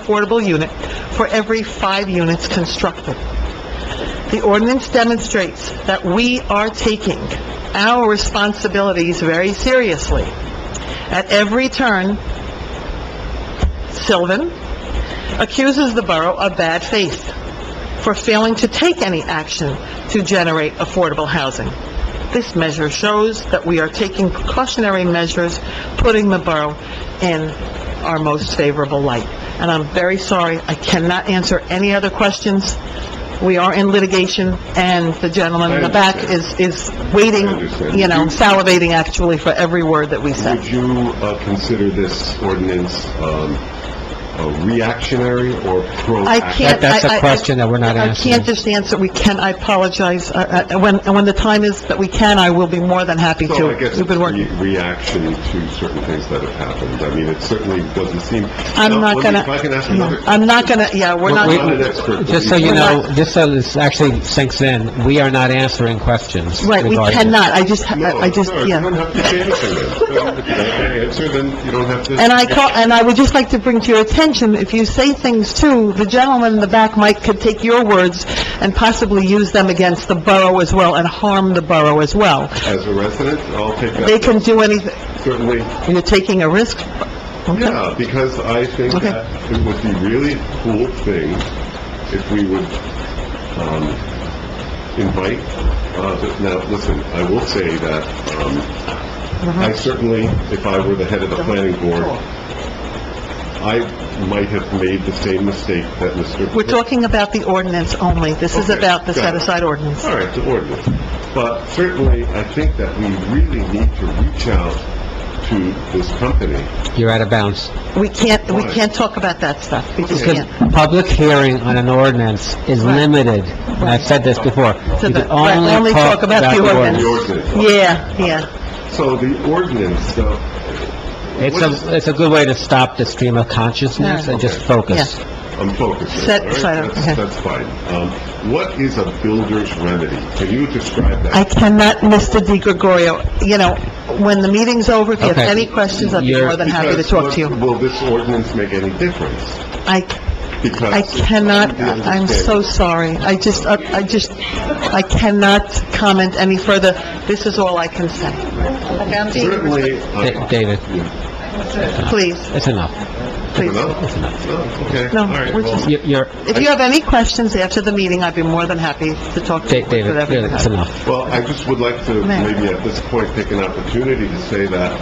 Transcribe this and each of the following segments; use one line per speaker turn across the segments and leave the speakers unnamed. affordable unit for every five units constructed. The ordinance demonstrates that we are taking our responsibilities very seriously. At every turn, Sylvan accuses the borough of bad faith for failing to take any action to generate affordable housing. This measure shows that we are taking precautionary measures, putting the borough in our most favorable light. And I'm very sorry, I cannot answer any other questions. We are in litigation, and the gentleman in the back is, is waiting,
I understand.
you know, salivating actually for every word that we say.
Would you uh, consider this ordinance um, uh, reactionary or proactive?
I can't, I...
That- that's a
I- I-
question that we're not answering.
I can't just answer, we can, I apologize, Uh, uh, when, and when the time is that we can, I will be more than happy to.
So I guess
We've
it's
been working,
re- reaction to certain things that have happened. I mean, it certainly doesn't seem...
I'm
Now,
not
let me-
gonna...
If I can ask another...
I'm not gonna, yeah, we're not...
I'm not an expert. but
Just so you
We're
know,
not-
just so this actually sinks in, we are not answering questions
Right, we
regarding...
cannot, I just,
No,
I I just,
no, You don't
yeah.
have to say anything then. If you don't answer, then you don't have to...
And I call, and I would just like to bring to your attention, if you say things too, the gentleman in the back might could take your words and possibly use them against the borough as well and harm the borough as well.
As a resident, I'll take
They
that,
can do anything,
certainly.
you're taking a risk, okay?
Yeah, because I think
Okay.
that it would be really cool thing if we would, um, invite, uh, th- now, listen, I will say that, um,
Uh-huh.
I certainly, if I were the head of the planning board, I might have made the same mistake that mister
We're talking about the ordinance only. This is
Okay,
about the
got it.
set-aside ordinance.
All right, the ordinance. But certainly, I think that we really need to reach out to this company.
You're out of bounds.
We can't, we
Why?
can't talk about that stuff. We just
Okay.
Because
can't.
public hearing on an ordinance is
Right.
limited, and I've said this before.
So
You
the-
can
right, only talk about the
The
ordinance.
ordinance.
Yeah, yeah.
So the ordinance, uh,
It's a, it's a good way to stop the stream of consciousness
Yeah.
and just focus.
I'm focused.
Set-
all right?
set-
That's-
okay.
That's fine. Um, what is a builder's remedy? Can you describe
I
that?
cannot, Mr. Di Gregorio, you know, when the meeting's over, if you have
Okay.
any questions, I'd be
You're-
more than happy to
Because
talk to
what-
you.
Will this ordinance make any difference?
I,
Because...
I cannot,
You
I'm
understand.
so sorry. I just, I I just, I cannot comment any further. This is all I can say. Okay, I'm being-
Certainly,
Da-
I...
David,
Yeah.
Please,
it's enough.
please.
Enough? No, okay.
No,
All right,
we're
well-
just-
You- You're,
If you have any questions after the meeting, I'd be more than happy to talk to you
Da-
with
David,
whatever you
really, it's
have.
enough.
Well, I just would like to
Ma'am.
maybe at this point take an opportunity to say that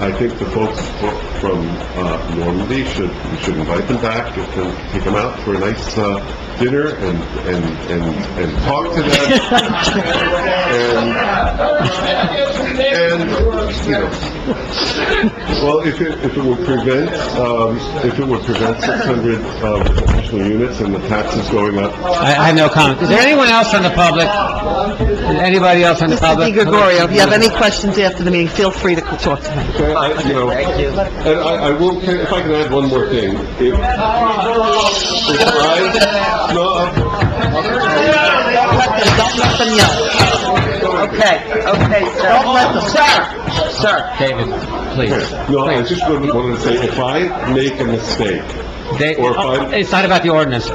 I think the folks fro- from uh, Normandy should, we should invite them back, get them, take them out for a nice uh, dinner and, and, and, and talk to them. And, and, you know, well, if it, if it would prevent, um, if it would prevent 600 uh, additional units and the taxes going up,
I, I have no comment. Is there anyone else in the public? Anybody else in the
Mr. Di
public?
Gregorio, if you have any questions after the meeting, feel free to talk to me.
Okay, I- you know, and I, I will, if I can add one more thing. If if I, no, uh, I'm-
Don't let them, don't let them yell. Okay, okay, sir. Don't let them. Sir! Sir.
David, please.
no, I just wanted wanted to say, if I make a mistake,
They- uh,
Or if I-
It's not about the ordinance.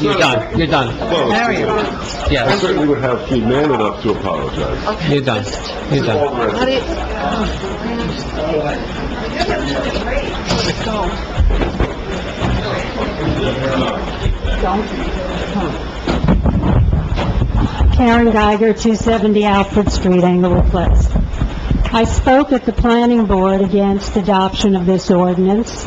You're done, you're done.
well, I
Yes,
certainly would have been man enough to apologize.
you're done, you're done.
How do you...
Karen Geiger, 270 Alfred Street, Englewood Cliffs. I spoke at the planning board against adoption of this ordinance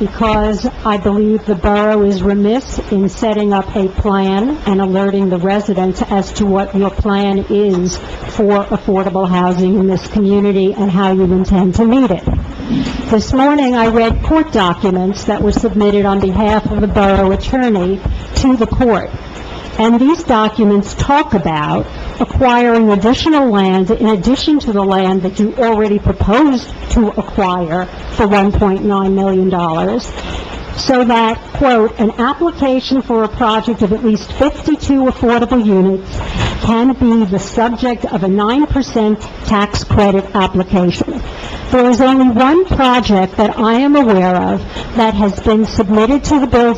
because I believe the borough is remiss in setting up a plan and alerting the residents as to what your plan is for affordable housing in this community and how you intend to meet it. This morning, I read court documents that were submitted on behalf of the borough attorney to the court. And these documents talk about acquiring additional land in addition to the land that you already proposed to acquire for $1.9 million, so that, quote, "An application for a project of at least 52 affordable units can be the subject of a 9% tax credit application." There is only one project that I am aware of that has been submitted to the Building